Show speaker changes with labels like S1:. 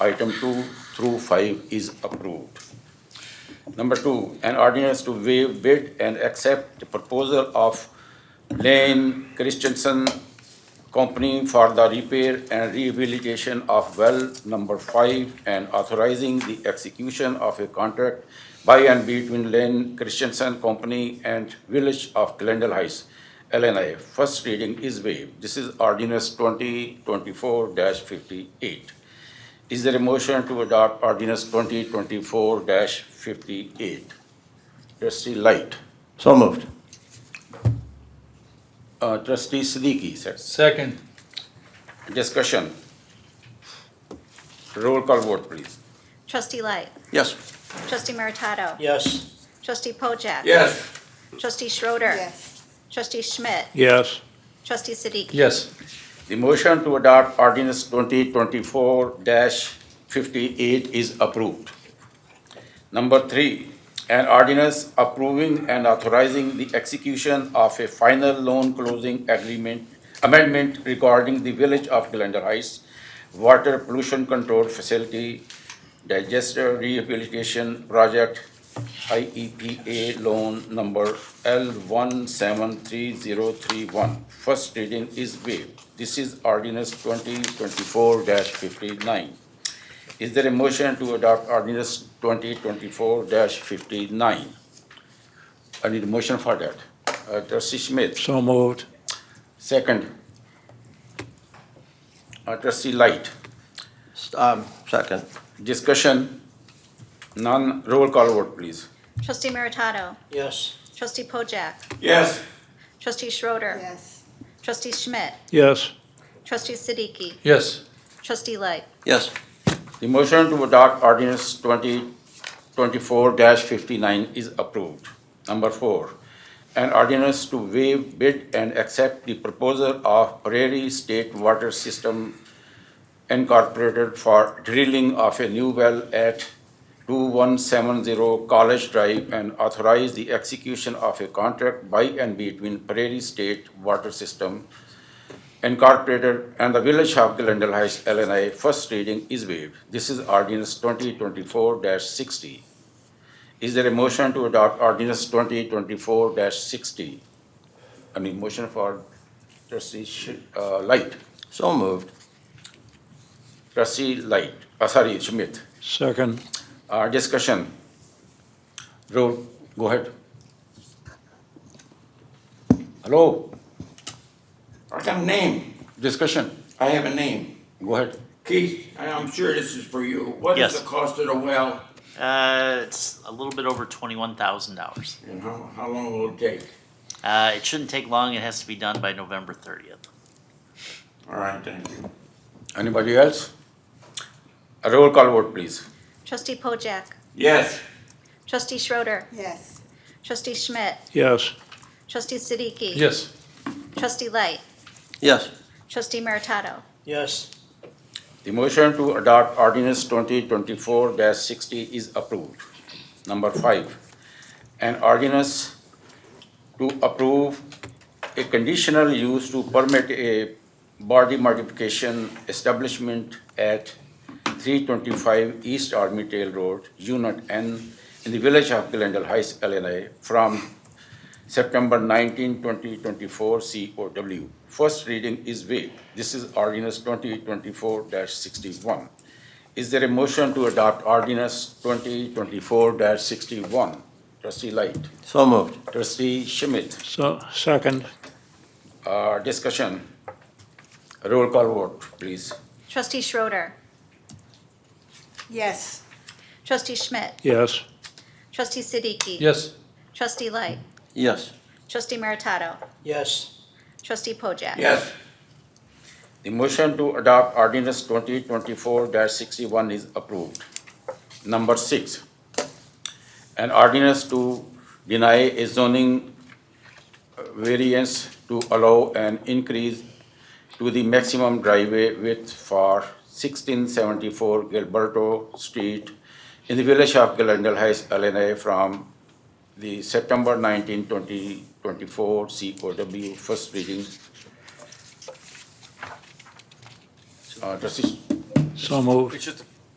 S1: item two through five is approved. Number two, an ordinance to waive bid and accept the proposal of Lane Christensen Company for the repair and rehabilitation of well number five and authorizing the execution of a contract by and between Lane Christensen Company and Village of Glendale Heights, LNI. First reading is waived. This is ordinance twenty twenty-four fifty-eight. Is there a motion to adopt ordinance twenty twenty-four fifty-eight? Trustee Light,
S2: So moved.
S1: uh, trustee Siddiqui, sir.
S3: Second.
S1: Discussion. Roll call vote, please.
S4: Trustee Light.
S1: Yes.
S4: Trustee Meritato.
S2: Yes.
S4: Trustee Pojek.
S1: Yes.
S4: Trustee Schroeder. Trustee Schmidt.
S3: Yes.
S4: Trustee Siddiqui.
S3: Yes.
S1: The motion to adopt ordinance twenty twenty-four fifty-eight is approved. Number three, an ordinance approving and authorizing the execution of a final loan closing agreement amendment regarding the Village of Glendale Heights Water Pollution Control Facility Digester Rehabilitation Project IEPA loan number L one seven three zero three one. First reading is waived. This is ordinance twenty twenty-four fifty-nine. Is there a motion to adopt ordinance twenty twenty-four fifty-nine? I need a motion for that. Uh, Trustee Smith,
S3: So moved.
S1: second. Uh, Trustee Light,
S2: Um, second.
S1: discussion, none, roll call vote, please.
S4: Trustee Meritato.
S2: Yes.
S4: Trustee Pojek.
S1: Yes.
S4: Trustee Schroeder.
S5: Yes.
S4: Trustee Schmidt.
S3: Yes.
S4: Trustee Siddiqui.
S3: Yes.
S4: Trustee Light.
S2: Yes.
S1: The motion to adopt ordinance twenty twenty-four fifty-nine is approved. Number four, an ordinance to waive bid and accept the proposal of Prairie State Water System Incorporated for drilling of a new well at two one seven zero College Drive and authorize the execution of a contract by and between Prairie State Water System Incorporated and the Village of Glendale Heights, LNI, first reading is waived. This is ordinance twenty twenty-four sixty. Is there a motion to adopt ordinance twenty twenty-four sixty? I mean, motion for trustee, Sh- uh, Light,
S2: So moved.
S1: trustee Light, uh, sorry, Schmidt.
S3: Second.
S1: Uh, discussion. Roll, go ahead. Hello,
S6: I got a name.
S1: discussion,
S6: I have a name.
S1: go ahead.
S6: Keith, and I'm sure this is for you. What is
S7: Yes.
S6: the cost of the well
S7: Uh, it's a little bit over twenty-one thousand dollars.
S6: and how, how long will it take?
S7: Uh, it shouldn't take long. It has to be done by November thirtieth.
S6: All right, thank you.
S1: Anybody else? A roll call vote, please.
S4: Trustee Pojek.
S6: Yes,
S4: Trustee Schroeder.
S5: Yes.
S4: Trustee Schmidt.
S3: Yes.
S4: Trustee Siddiqui.
S3: Yes.
S4: Trustee Light.
S2: Yes.
S4: Trustee Meritato.
S2: Yes.
S1: The motion to adopt ordinance twenty twenty-four sixty is approved. Number five, an ordinance to approve a conditional use to permit a body modification establishment at three twenty-five East Army Trail Road, Unit N, in the village of Glendale Heights, LNI, from September 19, 2024, COW. First reading is waived. This is ordinance 2024-61. Is there a motion to adopt ordinance 2024-61? Trustee Light,
S2: So moved.
S1: trustee Schmidt,
S3: So, second.
S1: uh, discussion. Roll call vote, please.
S4: Trustee Schroeder.
S5: Yes.
S4: Trustee Schmidt.
S3: Yes.
S4: Trustee Siddiqui.
S3: Yes.
S4: Trustee Light.
S2: Yes.
S4: Trustee Meritato.
S2: Yes.
S4: Trustee Pojek.
S6: yes,
S1: The motion to adopt ordinance 2024-61 is approved. Number six, an ordinance to deny a zoning variance to allow an increase to the maximum driveway width for 1674 Gilberto Street in the village of Glendale Heights, LNA, from the September 19, 2024 COW first reading. Uh, Trustee 啊
S3: So moved.
S8: It's just,